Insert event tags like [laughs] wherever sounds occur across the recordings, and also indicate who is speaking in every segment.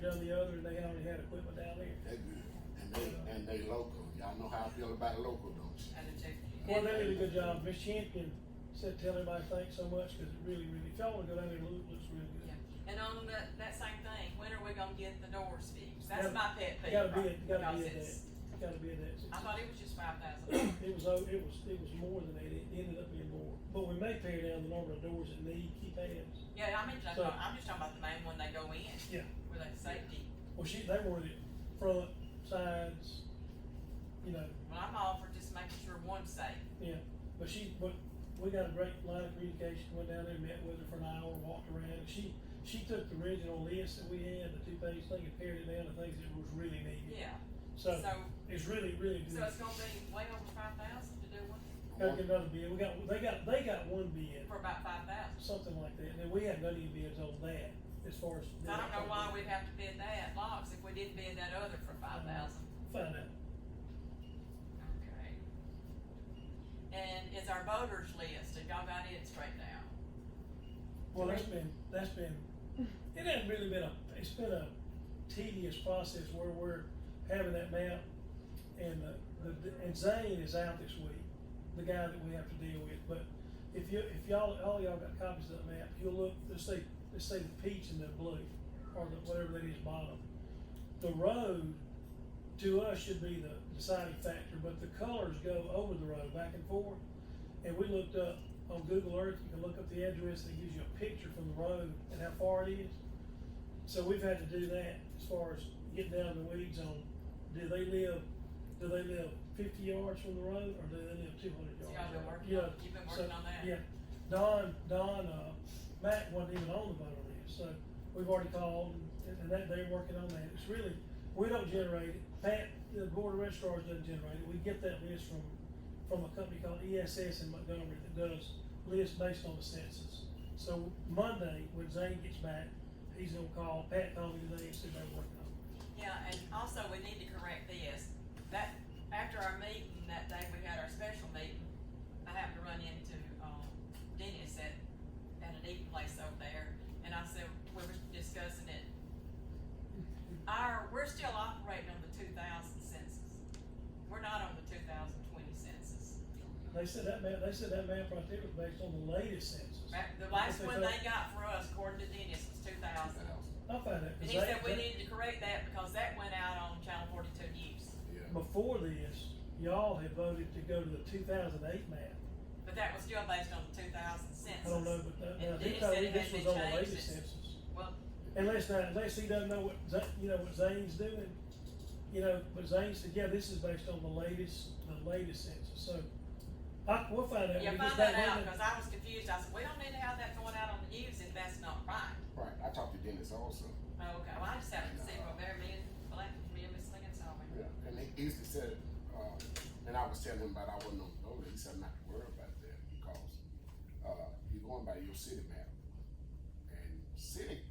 Speaker 1: done the others, they only had equipment down there.
Speaker 2: They good. And they, and they local. Y'all know how I feel about local, don't you?
Speaker 3: Had to check.
Speaker 1: Well, they did a good job. Miss Champion said, tell everybody thanks so much, cause it really, really, if y'all would go down there, it looks, looks really good.
Speaker 3: Yeah. And on that, that same thing, when are we gonna get the doors fixed? That's
Speaker 1: Gotta-
Speaker 3: my pet
Speaker 1: You
Speaker 3: peeve.
Speaker 1: gotta be,
Speaker 3: right?
Speaker 1: at- you gotta
Speaker 3: Because
Speaker 1: be at that,
Speaker 3: it's-
Speaker 1: you gotta be at
Speaker 3: I
Speaker 1: that.
Speaker 3: thought it was just five thousand.
Speaker 1: It was, o- it was, it was more than that. It ended up being more. But we may tear down the number of doors that need key pads.
Speaker 3: Yeah, I mean, I'm
Speaker 1: So-
Speaker 3: talking- I'm just talking about the main one they go in.
Speaker 1: Yeah.
Speaker 3: Where they safety.
Speaker 1: Well, she, they were the front, sides, you know,
Speaker 3: Well, I'm all for just making sure one's safe.
Speaker 1: yeah. But she, but we got a great line of communication, went down there, met with her for an hour, walked around. She, she took the original list that we had, the two-page thing, and pared it down to things that was really needed.
Speaker 3: Yeah.
Speaker 1: So
Speaker 3: So, so
Speaker 1: it's really, really good.
Speaker 3: it's gonna be way over five thousand to do one
Speaker 1: Gotta get another bid. We got, they got, they got one bid,
Speaker 3: for about five thousand.
Speaker 1: something like that. And then we had none of your bids on that as far as.
Speaker 3: I don't know why we'd have to bid that locks if we didn't bid that other for five
Speaker 1: Uh-huh.
Speaker 3: thousand.
Speaker 1: Find out.
Speaker 3: Okay. And is our voters list, have y'all got it straightened out?
Speaker 1: Well, that's been, that's been, it hasn't really been a, it's been a tedious process where we're having that map. And, uh, the, and Zane is out this week, the guy that we have to deal with, but if you, if y'all, all y'all got copies of that map, you'll look, let's say, let's say the peach and the blue, or the, whatever that is bottom. The road to us should be the deciding factor, but the colors go over the road back and forth. And we looked up on Google Earth, you can look up the address, and it gives you a picture from the road and how far it is. So we've had to do that as far as getting down in the weeds on, do they live, do they live fifty yards from the road, or do they live two hundred
Speaker 3: So
Speaker 1: yards?
Speaker 3: y'all been working
Speaker 1: Yeah,
Speaker 3: on- you've been
Speaker 1: so,
Speaker 3: working on that?
Speaker 1: Yeah, Don, Don, uh, Matt wasn't even on the voter list, so we've already called, and, and that, they're working on that, it's really, we don't generate it, Pat, the board of registrars doesn't generate it, we get that list from, from a company called ESS in Montgomery that does lists based on the census. So Monday, when Zane gets back, he's gonna call, Pat called me today and said they're working on it.
Speaker 3: Yeah, and also we need to correct this, that, after our meeting that day, we had our special meeting, I happened to run into, um, Dennis at, at an eating place over there, and I said, we were discussing it. Our, we're still operating on the two thousand census, we're not on the two thousand twenty census.
Speaker 1: They said that map, they said that map right there was based on the latest census.
Speaker 3: Right, The last one they got for us, according to Dennis, was two thousand.
Speaker 1: I'll find out,
Speaker 3: And
Speaker 1: cause
Speaker 3: he said we
Speaker 1: they,
Speaker 3: needed to correct that because that went out on Channel forty-two news,
Speaker 2: Yeah.
Speaker 1: before this, y'all had voted to go to the two thousand eight map.
Speaker 3: but that was still based on the two thousand census.
Speaker 1: I don't know, but that, now,
Speaker 3: And
Speaker 1: he
Speaker 3: then he
Speaker 1: told me
Speaker 3: said it
Speaker 1: this
Speaker 3: had
Speaker 1: was on
Speaker 3: been
Speaker 1: the latest
Speaker 3: changed since-
Speaker 1: census.
Speaker 3: Well,
Speaker 1: Unless now, unless he doesn't know what, Za- you know, what Zane's doing, you know, but Zane said, yeah, this is based on the latest, the latest census, so. I, we'll find out.
Speaker 3: yeah,
Speaker 1: We just
Speaker 3: find that
Speaker 1: don't
Speaker 3: out,
Speaker 1: know.
Speaker 3: cause I was confused, I said, we don't need to have that going out on the news if that's not right.
Speaker 2: Right. I talked to Dennis also.
Speaker 3: Oh, Okay, well, I just happened to see from there, me and, well, that, me and Miss Lincoln saw me.
Speaker 2: Yeah. And he used to say, uh, and I was telling him about I wasn't on the road. He said not to worry about that because uh, you're going by your city map. And city,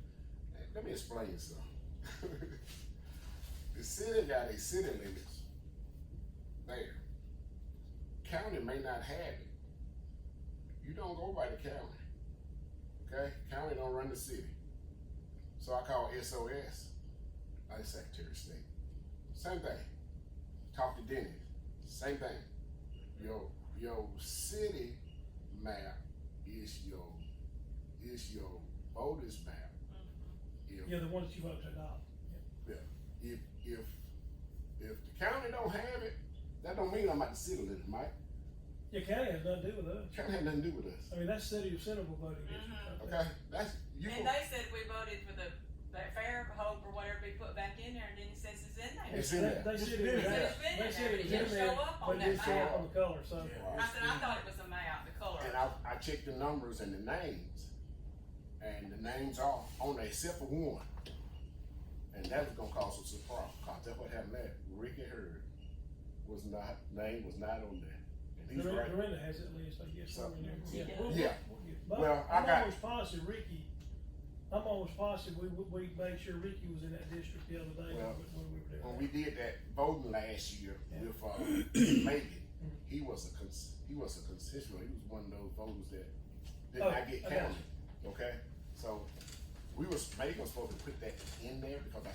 Speaker 2: let- let me explain something. [laughs] the city got a city limits there. County may not have it. You don't go by the county. Okay? County don't run the city. So I call SOS, I Secretary of State. Same thing. Talk to Denny. Same thing. Your your city map is your is your voters map. If
Speaker 1: Yeah, the ones you voted to adopt.
Speaker 2: if if if the county don't have it, that don't mean I'm at the city limit, Mike.
Speaker 1: Your county has nothing to do with us.
Speaker 2: County had nothing to do with us.
Speaker 1: I mean, that's city of Centerville voting. district right
Speaker 3: Mm-hmm.
Speaker 1: there.
Speaker 2: Okay, that's you.
Speaker 3: And they said we voted for the, that fair hope or whatever we put back in there, and Dennis says it's in there.
Speaker 2: It's in
Speaker 1: They-
Speaker 2: there.
Speaker 1: They
Speaker 2: It's
Speaker 1: said
Speaker 2: been
Speaker 1: it was out, they said it was
Speaker 2: there.
Speaker 3: It's been in there. It
Speaker 1: in
Speaker 3: didn't
Speaker 1: there,
Speaker 3: show up on
Speaker 1: but it
Speaker 3: that
Speaker 1: didn't show up
Speaker 2: map.
Speaker 1: on the color, so.
Speaker 3: I said, I thought it was the map, the color.
Speaker 2: And I, I checked the numbers and the names, and the names are on there except for one. And that was gonna cause us a problem, cause that's what happened there. Ricky Hurd was not, name was not on there. And he's right.
Speaker 1: Dorinda, Dorinda has it least, I guess, somewhere in there.
Speaker 3: She does.
Speaker 1: we'll-
Speaker 2: Yeah.
Speaker 1: we'll get- But
Speaker 2: Well, I
Speaker 1: I'm
Speaker 2: got-
Speaker 1: almost positive Ricky, I'm almost positive we, we, we made sure Ricky was in that district the other day
Speaker 2: Well,
Speaker 1: when when we were doing that.
Speaker 2: When we did that voting last year with, uh, Megan, he was a cons- he was a constituent, he was one of those voters that did
Speaker 1: Oh,
Speaker 2: not get
Speaker 1: I got
Speaker 2: counted, okay? So, we was, Megan was supposed to put that in there because I